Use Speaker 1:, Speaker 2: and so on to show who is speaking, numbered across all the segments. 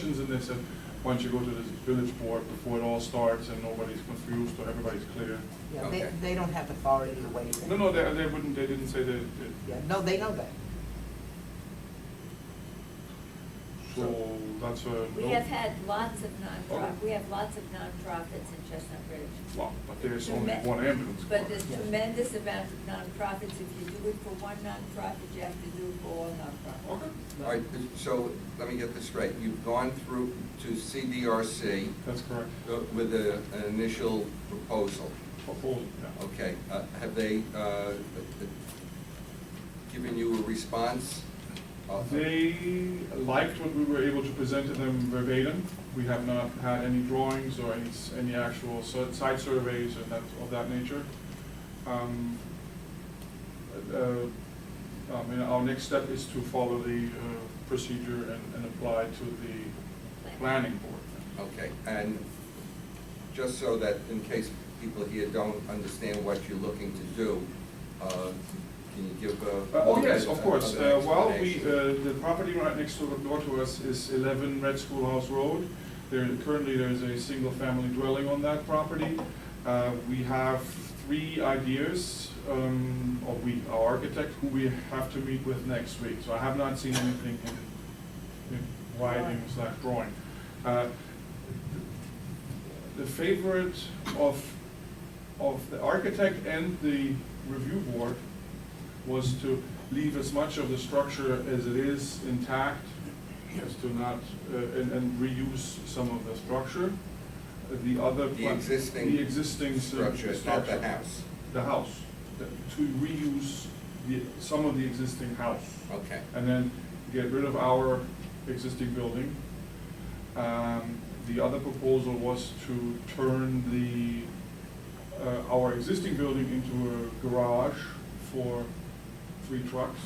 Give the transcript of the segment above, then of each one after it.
Speaker 1: they said, why don't you go to the village board before it all starts and nobody's confused or everybody's clear?
Speaker 2: Yeah, they,
Speaker 3: Okay.
Speaker 2: they don't have authority to waive it.
Speaker 1: No, no, they, they wouldn't, they didn't say that, that-
Speaker 2: Yeah, no, they know that.
Speaker 1: so that's a no.
Speaker 4: We have had lots of nonprofit,
Speaker 1: Oh.
Speaker 4: we have lots of nonprofits in Chestnut Ridge.
Speaker 1: Well, but there's only
Speaker 4: Treme-
Speaker 1: one ambulance.
Speaker 4: But there's
Speaker 2: Yeah.
Speaker 4: tremendous amount of nonprofits. If you do it for one nonprofit, you have to do it for all nonprofits.
Speaker 1: Okay,
Speaker 3: All right, so let me get this straight. You've gone through to CDRC
Speaker 1: that's correct.
Speaker 3: uh, with a- an initial proposal.
Speaker 1: Proposal, Oh, yeah.
Speaker 3: Okay, uh, have they uh, uh, given you a response? Uh,
Speaker 1: They liked what we were able to present to them verbatim. We have not had any drawings or any, s- any actual sur- site surveys and that, of that nature. Um, uh, I mean, our next step is to follow the uh, procedure and, and apply to the planning board.
Speaker 3: Okay, and just so that in case people here don't understand what you're looking to do, uh, can you give a?
Speaker 1: Uh, Oh, yes, of course.
Speaker 3: of an
Speaker 1: Uh, Well, we,
Speaker 3: explanation?
Speaker 1: uh, the property right next to, door to us is 11 Red Schoolhouse Road. There, currently, there is a single-family dwelling on that property. Uh, We have three ideas, um, or we, our architect, who we have to meet with next week. So I have not seen anything in, in writing slash drawing. Uh, The favorite of, of the architect and the review board was to leave as much of the structure as it is intact, as to not, uh, and, and reuse some of the structure. The other.
Speaker 3: The
Speaker 1: pla-
Speaker 3: existing
Speaker 1: The existing. s-
Speaker 3: structure, not the
Speaker 1: structure.
Speaker 3: house.
Speaker 1: The house, the- to reuse the, some of the existing house.
Speaker 3: Okay.
Speaker 1: And then get rid of our existing building. Um, The other proposal was to turn the, uh, our existing building into a garage for three trucks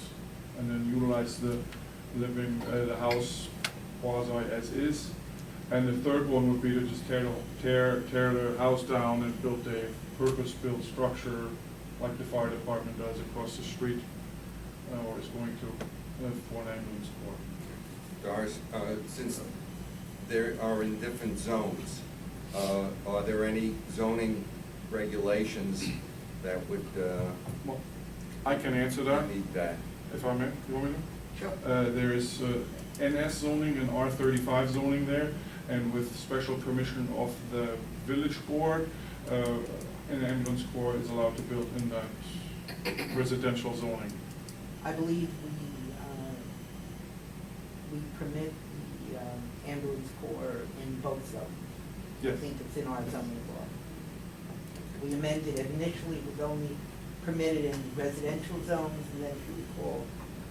Speaker 1: and then utilize the living, uh, the house quasi as is. And the third one would be to just tear, the- tear, tear the house down and build a purpose-built structure like the fire department does across the street, uh, or is going to, uh, for an ambulance corps.
Speaker 3: Doris, uh, since there are in different zones, uh, are there any zoning regulations that would uh,
Speaker 1: Well, I can answer that,
Speaker 3: meet that?
Speaker 1: if I may, you want me to?
Speaker 2: Sure.
Speaker 1: Uh, There is uh, NS zoning and R thirty-five zoning there, and with special permission of the village board, uh, an ambulance corps is allowed to build in that residential zoning.
Speaker 2: I believe we, uh, we permit the um, ambulance corps in both zones. I
Speaker 1: Yes.
Speaker 2: think it's in our zoning law. We amended, it. initially it was only permitted in residential zones, and then if you recall,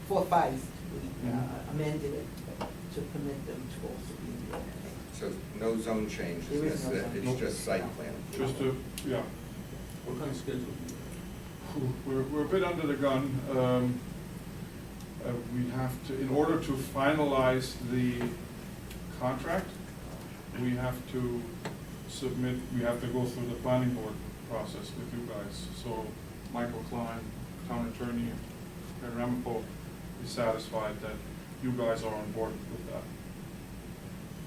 Speaker 2: four, five, we uh,
Speaker 1: Mhm.
Speaker 2: amended it to permit them to also be in the ordinance.
Speaker 3: So no zone changes,
Speaker 2: There is no
Speaker 3: necessary.
Speaker 2: zone.
Speaker 3: it's just site plan.
Speaker 1: Just to, yeah,
Speaker 5: What kind of schedule? do
Speaker 1: Whew, we're, we're a bit under the gun. Um, uh, We have to, in order to finalize the contract, we have to submit, we have to go through the planning board process with you guys. So Michael Klein, town attorney, and Ramapo is satisfied that you guys are on board with that.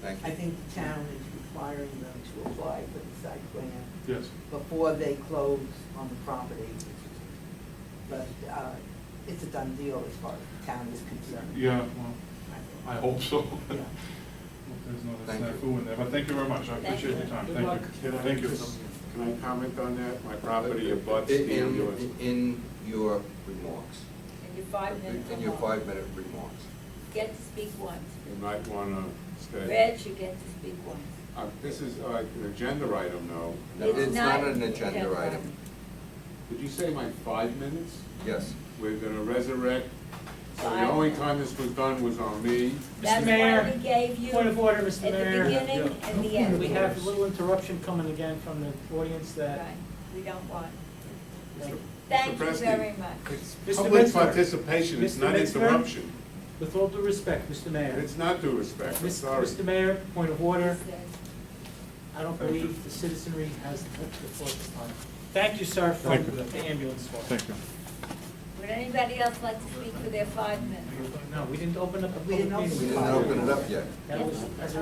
Speaker 3: Thank
Speaker 2: I
Speaker 3: you.
Speaker 2: think the town is requiring them to apply for the site plan
Speaker 1: Yes,
Speaker 2: before they close on the property. But uh, it's a done deal as far as the town is concerned.
Speaker 1: yeah, well, I hope so.
Speaker 2: Yeah.
Speaker 1: There's no, there's
Speaker 3: Thank
Speaker 1: no
Speaker 3: you.
Speaker 1: fool in there, but thank you very much. I
Speaker 4: Thank
Speaker 1: appreciate
Speaker 4: you.
Speaker 1: your time.
Speaker 5: Good
Speaker 1: Thank
Speaker 5: luck.
Speaker 1: you.
Speaker 6: Can I
Speaker 1: Thank you.
Speaker 6: just- Can I comment on that? My property abuts
Speaker 3: In-
Speaker 6: the
Speaker 3: in-
Speaker 6: ambulance.
Speaker 3: In your remarks.
Speaker 4: And your five minutes.
Speaker 3: In your five-minute remarks.
Speaker 4: Get to speak once.
Speaker 6: You might want to stay.
Speaker 4: Reg, you get to speak once.
Speaker 6: Uh, This is uh, an agenda item, though.
Speaker 3: No,
Speaker 4: It's
Speaker 3: It's
Speaker 4: not
Speaker 3: not an
Speaker 4: agenda
Speaker 3: agenda item.
Speaker 4: item.
Speaker 6: Did you say my five minutes?
Speaker 3: Yes.
Speaker 6: We're going to resurrect. So the only time this was done was on me.
Speaker 4: That's why
Speaker 5: Mayor,
Speaker 4: we gave you.
Speaker 5: point of order, Mr.
Speaker 4: At the
Speaker 5: Mayor.
Speaker 4: beginning and the
Speaker 5: we-
Speaker 4: end.
Speaker 5: We have a little interruption coming again from the audience that,
Speaker 4: Right, we don't want.
Speaker 5: Thank you.
Speaker 4: Thank you
Speaker 6: Preston,
Speaker 4: very much.
Speaker 6: It's
Speaker 5: Mr.
Speaker 6: public
Speaker 5: Metzger.
Speaker 6: participation, it's
Speaker 5: Mr.
Speaker 6: not
Speaker 5: Metzger?
Speaker 6: interruption.
Speaker 5: with all due respect, Mr. Mayor.
Speaker 6: It's not due respect, I'm
Speaker 5: Mis-
Speaker 6: sorry.
Speaker 5: Mr. Mayor, point of order, I don't
Speaker 1: Thank you.
Speaker 5: believe the citizenry has the floor at this time. Thank you, sir, for
Speaker 1: Thank you.
Speaker 5: the ambulance call.
Speaker 1: you.
Speaker 4: Would anybody else like to speak for their five minutes?
Speaker 5: No, we didn't open up
Speaker 2: We
Speaker 5: a public
Speaker 2: didn't
Speaker 5: meeting.
Speaker 3: We didn't open it up yet.
Speaker 5: That was, as a